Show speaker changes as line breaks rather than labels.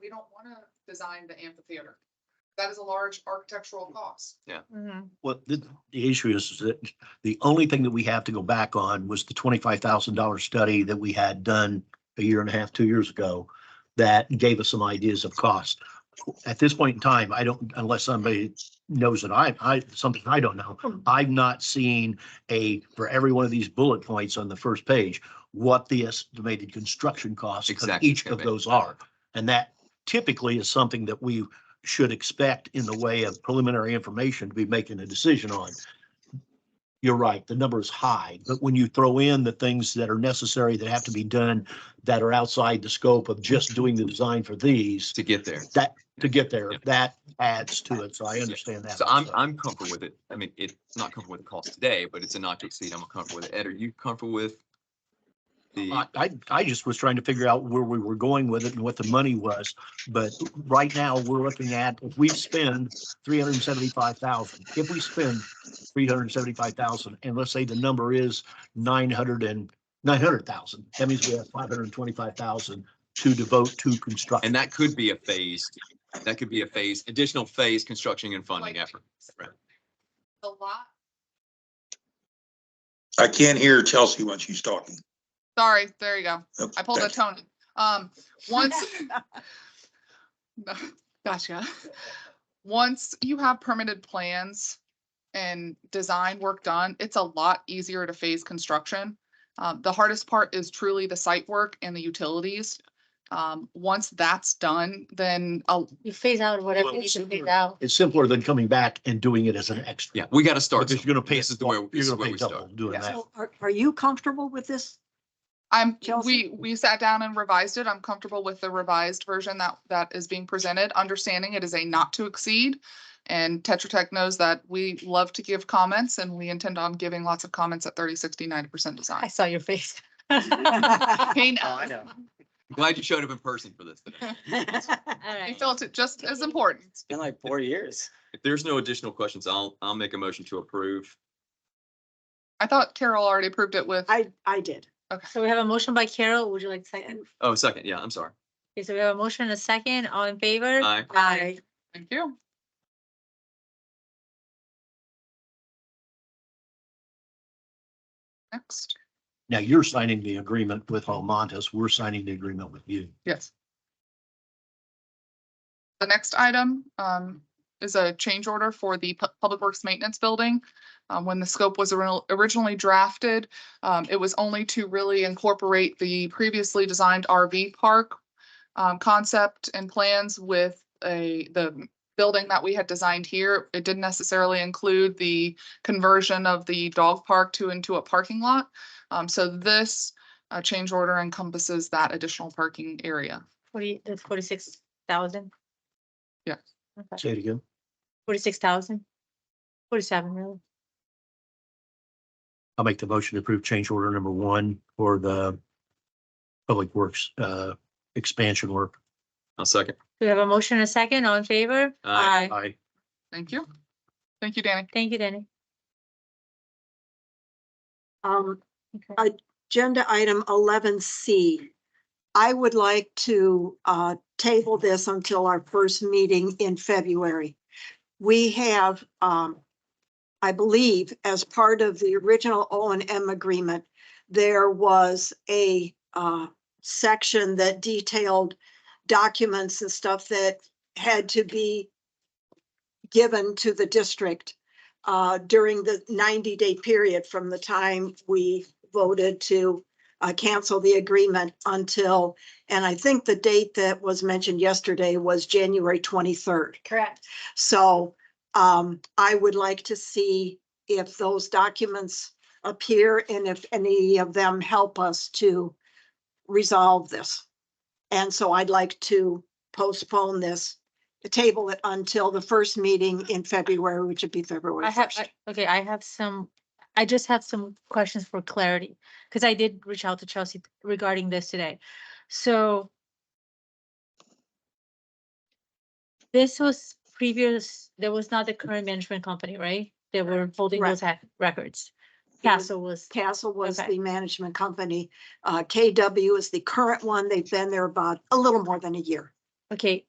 we don't wanna design the amphitheater. That is a large architectural cost.
Well, the, the issue is is that the only thing that we have to go back on was the twenty-five thousand dollar study that we had done a year and a half, two years ago that gave us some ideas of cost. At this point in time, I don't, unless somebody knows that I, I, something I don't know, I've not seen a, for every one of these bullet points on the first page, what the estimated construction costs of
Exactly,
each of
Kevin.
those are. And that typically is something that we should expect in the way of preliminary information to be making a decision on. You're right, the number is high, but when you throw in the things that are necessary that have to be done that are outside the scope of just doing the design for these
to get there.
that, to get there,
Yeah.
that adds to it. So I understand that.
So I'm, I'm comfortable with it. I mean, it's not comfortable with the cost today, but it's a not to exceed. I'm comfortable with it. Ed, are you comfortable with? The,
I, I, I just was trying to figure out where we were going with it and what the money was. But right now, we're looking at, if we spend three hundred and seventy-five thousand, if we spend three hundred and seventy-five thousand, and let's say the number is nine hundred and, nine hundred thousand, that means we have five hundred and twenty-five thousand to devote to construction.
and that could be a phased, that could be a phase, additional phase construction and funding effort. right.
The lot,
I can't hear Chelsea when she's talking.
sorry, there you go.
Okay,
I pulled a
thank you.
Tony. Um, once. Gotcha. Once you have permitted plans and design work done, it's a lot easier to phase construction. Um, the hardest part is truly the site work and the utilities. Um, once that's done, then i
You phase out whatever
Well,
you can phase
sure.
out.
It's simpler than coming back and doing it as an extra.
Yeah, we got to start.
Because you're gonna pay,
This is the way,
you're
this is
gonna
where
pay
we
double
start.
doing that.
So are, are you comfortable with this?
I'm, we,
Chelsea?
we sat down and revised it. I'm comfortable with the revised version that, that is being presented, understanding it is a not to exceed. And Tetra Tech knows that we love to give comments and we intend on giving lots of comments at 30, 60, 90%
I
design.
saw your face.
Hey,
Oh, I
no,
know.
Glad you showed up in person for this today.
I
Alright.
felt it just as important.
Been like four years.
If there's no additional questions, I'll, I'll make a motion to approve.
I thought Carol already approved it with,
I, I did.
So we have a motion by Carol. Would you like second?
Oh, second. Yeah, I'm sorry.
Okay, so we have a motion and a second. All in favor?
Aye.
Aye.
thank you. Next,
Now you're signing the agreement with Almontes, we're signing the agreement with you.
yes. The next item um, is a change order for the Pu- Public Works Maintenance Building. Um, When the scope was ori- originally drafted, um, it was only to really incorporate the previously designed RV park um, concept and plans with a, the building that we had designed here. It didn't necessarily include the conversion of the dog park to into a parking lot. Um, So this uh, change order encompasses that additional parking area.
Forty, that's forty-six thousand,
Say it again.
forty-six thousand? Forty-seven, really?
I'll make the motion to approve change order number one for the Public Works uh expansion work.
I'll second.
We have a motion and a second. All in favor?
Aye.
I
Thank you. Thank you, Danny.
Thank you, Danny.
Um,
Okay.
agenda item eleven C. I would like to, uh, table this until our first meeting in February. We have, um, I believe, as part of the original O and M agreement, there was a, uh, section that detailed documents and stuff that had to be given to the district uh, during the ninety-day period from the time we voted to uh, cancel the agreement until, and I think the date that was mentioned yesterday was January twenty-third.
Correct.
So um, I would like to see if those documents appear and if any of them help us to resolve this. And so I'd like to postpone this, table it until the first meeting in February, which would be February
I have,
first.
I- okay, I have some, I just have some questions for clarity, because I did reach out to Chelsea regarding this today. So this was previous, there was not the current management company, right? They were holding
Right.
those ha- records.
It was-
Castle was,
Castle was
Okay.
the management company. Uh, KW is the current one. They've been there about a little more than a year.
Okay,